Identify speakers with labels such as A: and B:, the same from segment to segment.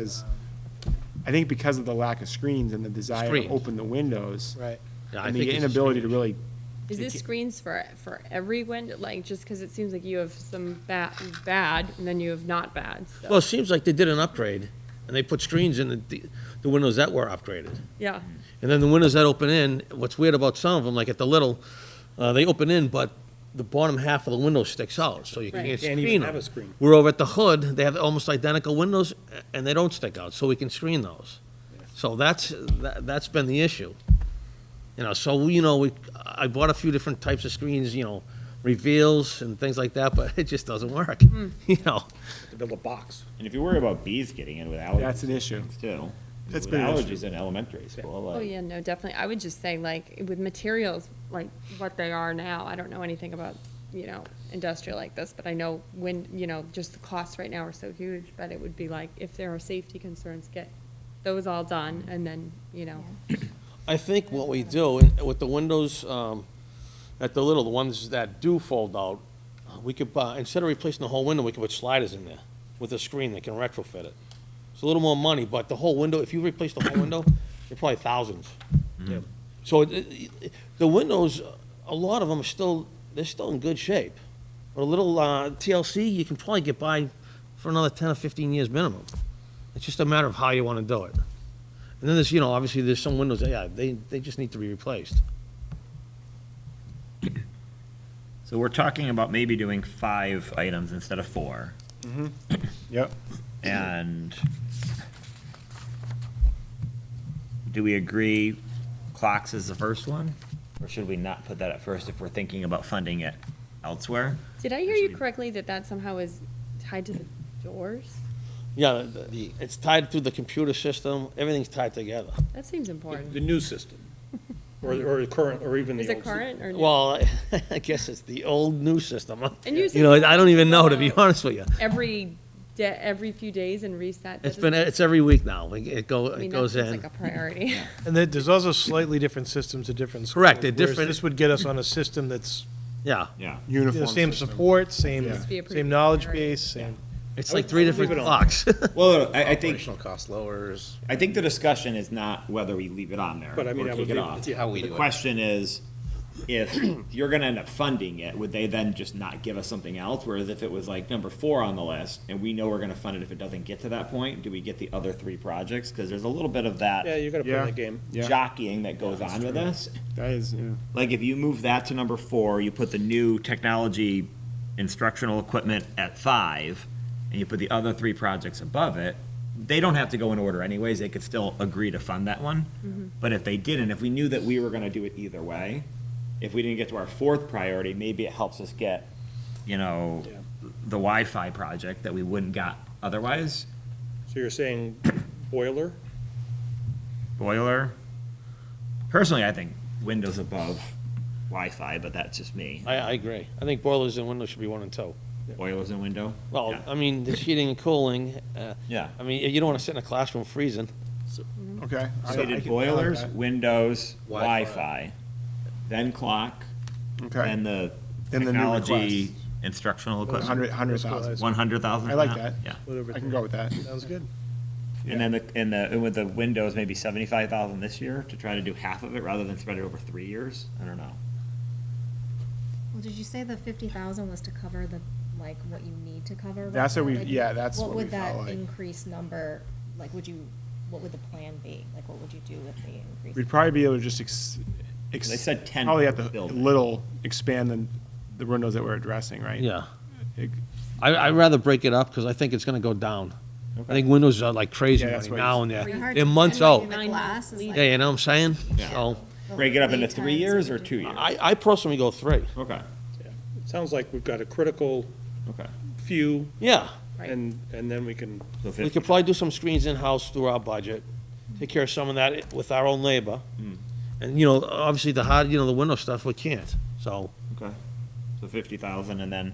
A: Because I think because of the lack of screens and the desire to
B: Screens.
A: open the windows.
C: Right.
B: Yeah, I
A: And
B: think
A: the
B: it's a
A: inability to
B: screen
A: really.
D: Is
A: it
D: this
A: ca-
D: screens for, for every window, like, just because it seems like you have some bad, bad, and then you have not bad, so-
B: Well, it seems like they did an upgrade, and they put screens in the, the windows that were upgraded.
D: Yeah,
B: And then the windows that open in, what's weird about some of them, like at the little, uh, they open in, but the bottom half of the window sticks out, so you
D: Right.
B: can't
C: Can't even
B: screen
C: have
B: them.
C: a screen.
B: We're over at the hood, they have almost identical windows, a- and they don't stick out, so we can screen those. So that's, tha- that's been the issue. You know, so, you know, we, I bought a few different types of screens, you know, reveals and things like that, but it just doesn't work, you know?
C: To build a box.
E: And if you worry about bees getting in with allergies.
A: That's an issue.
E: Too.
A: That's
E: With
A: been an issue.
E: Allergies in elementary school, like.
D: oh, yeah, no, definitely, I would just say, like, with materials, like, what they are now, I don't know anything about, you know, industrial like this, but I know when, you know, just the costs right now are so huge, but it would be like, if there are safety concerns, get those all done, and then, you know,
B: I think what we do, and with the windows, um, at the little, the ones that do fold out, uh, we could, buy instead of replacing the whole window, we could put sliders in there with a screen that can retrofit it. It's a little more money, but the whole window, if you replace the whole window, they're probably thousands.
C: Yep.
B: So it- it- it- the windows, a lot of them are still, they're still in good shape. But a little uh, TLC, you can probably get by for another 10 or 15 years minimum. It's just a matter of how you want to do it. And then there's, you know, obviously there's some windows, that, yeah, they, they just need to be replaced.
E: So we're talking about maybe doing five items instead of four,
A: Yep.
E: and do we agree clocks is the first one? Or should we not put that at first if we're thinking about funding it elsewhere?
D: did I hear you
E: Actually-
D: correctly, that that somehow is tied to the doors?
B: Yeah, the- it's tied through the computer system, everything's tied together.
D: That seems important.
C: The new system, or, or the current, or even the
D: Is
C: old.
D: it
C: system.
D: current or? new?
B: Well, I guess it's the old new system. huh?
D: And you
B: You know,
D: said-
B: I don't even know, to be honest with you.
D: every day, every few days and reset.
B: It's
D: That
B: been,
D: doesn't-
B: it's every week now, it it go,
D: I
B: it
D: mean,
B: goes
D: that seems
B: in.
D: like a priority.
F: And there- there's also slightly different systems to different schools.
B: Correct, they're
F: whereas
B: different-
F: This would get us on a system that's,
B: Yeah,
E: Yeah.
F: you know,
A: Uniform.
F: same
A: system.
F: support, same,
D: Just be a pretty
F: same knowledge
D: area.
F: base, same.
B: it's
C: I
B: like
C: would
B: three
C: leave
B: different
C: it on.
B: clocks.
E: Well, I, I think,
G: Operational cost lowers.
E: I think the discussion is not whether we leave it on there
C: But I mean,
E: or
C: I
E: kick
C: would
E: it
C: leave it-
E: off.
C: yeah.
G: How we
E: The
G: do it.
E: question is, if you're gonna end up funding it, would they then just not give us something else? Whereas if it was like number four on the list, and we know we're gonna fund it if it doesn't get to that point, do we get the other three projects? Cause there's a little bit of
C: Yeah,
E: that
C: you gotta play
A: Yeah.
C: the game.
A: Yeah,
E: jockeying that goes on with this.
A: that is, yeah.
E: Like, if you move that to number four, you put the new technology instructional equipment at five, and you put the other three projects above it, they don't have to go in order anyways, they could still agree to fund that one. But if they didn't, if we knew that we were gonna do it either way, if we didn't get to our fourth priority, maybe it helps us get, you know,
C: Yeah.
E: the Wi-Fi project that we wouldn't got otherwise,
C: So you're saying boiler?
E: boiler. Personally, I think windows above Wi-Fi, but that's just me.
B: I, I agree. I think boilers and windows should be one and two.
E: Boilers and window.
B: Well, uh,
E: Yeah.
B: I mean, there's heating and cooling. uh,
E: Yeah.
B: I mean, you don't want to sit in a classroom freezing.
A: Okay. I-
E: So
A: I
E: we did
A: can- I like
E: boilers,
A: that.
E: windows,
G: Wi-Fi.
E: Wi-Fi, then clock,
A: Okay.
E: then the
A: Then the new
E: technology
A: request.
E: instructional equipment.
A: Hundred, hundred thousand.
E: One hundred thousand.
A: I like that.
E: Yeah.
F: whatever.
A: I can go with that.
F: Sounds good.
E: And then the, and the, and with the windows, maybe seventy-five thousand this year to try to do half of it rather than spread it over three years. I don't know.
H: Well, did you say the fifty thousand was to cover the, like, what you need to cover? right
A: That's what
H: now?
A: we-
H: Like,
A: yeah, that's what we felt
H: What would
A: like.
H: that increased number, like, would you, what would the plan be? Like, what would you do with the increase?
A: We'd probably be able to just ex. ex-
E: They said 10
A: Probably have
E: per
A: to
E: building.
A: little expand the, the windows that we're addressing, right?
B: Yeah.
A: It-
B: I, I'd rather break it up because I think it's going to go down. I think windows are like crazy
A: Yeah, that's
B: right
A: what
B: now and
H: They're
B: they're,
H: hard
B: they're
H: to
B: months
H: plan,
B: out.
H: like, the glass is, like,
B: Yeah, you know what I'm saying?
E: Yeah.
B: So
E: Break it up into
H: lead
E: three
H: Oh, times
E: years
H: would
E: or
H: be-
E: two years?
B: I, I personally go three.
E: Okay,
C: It Sounds like we've got a critical
E: okay.
C: few,
B: Yeah.
D: Right.
C: and, and then we can,
E: So
B: We
E: fifty, Mm.
B: could probably do some screens in-house through our budget, take care of some of that with our own labor. And, you know, obviously the hard, you know, the window stuff, we can't. So,
E: okay. So fifty thousand and then,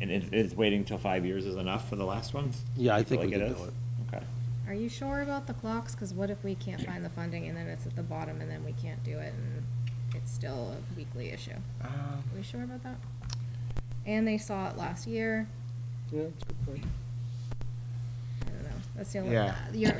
E: and it, it's waiting till five years is enough for the last ones?
B: yeah, I
E: You feel
B: think we
E: like
B: can
E: it
B: do
E: is?
B: it.
E: Okay.
H: Are you sure about the clocks? Cause what if we can't find the funding and then it's at the bottom and then we can't do it and it's still a weekly issue? Are we sure about that? And they saw it last year,
C: yeah, that's a good point.
H: I don't know, That's the only,
A: Yeah.
H: you're,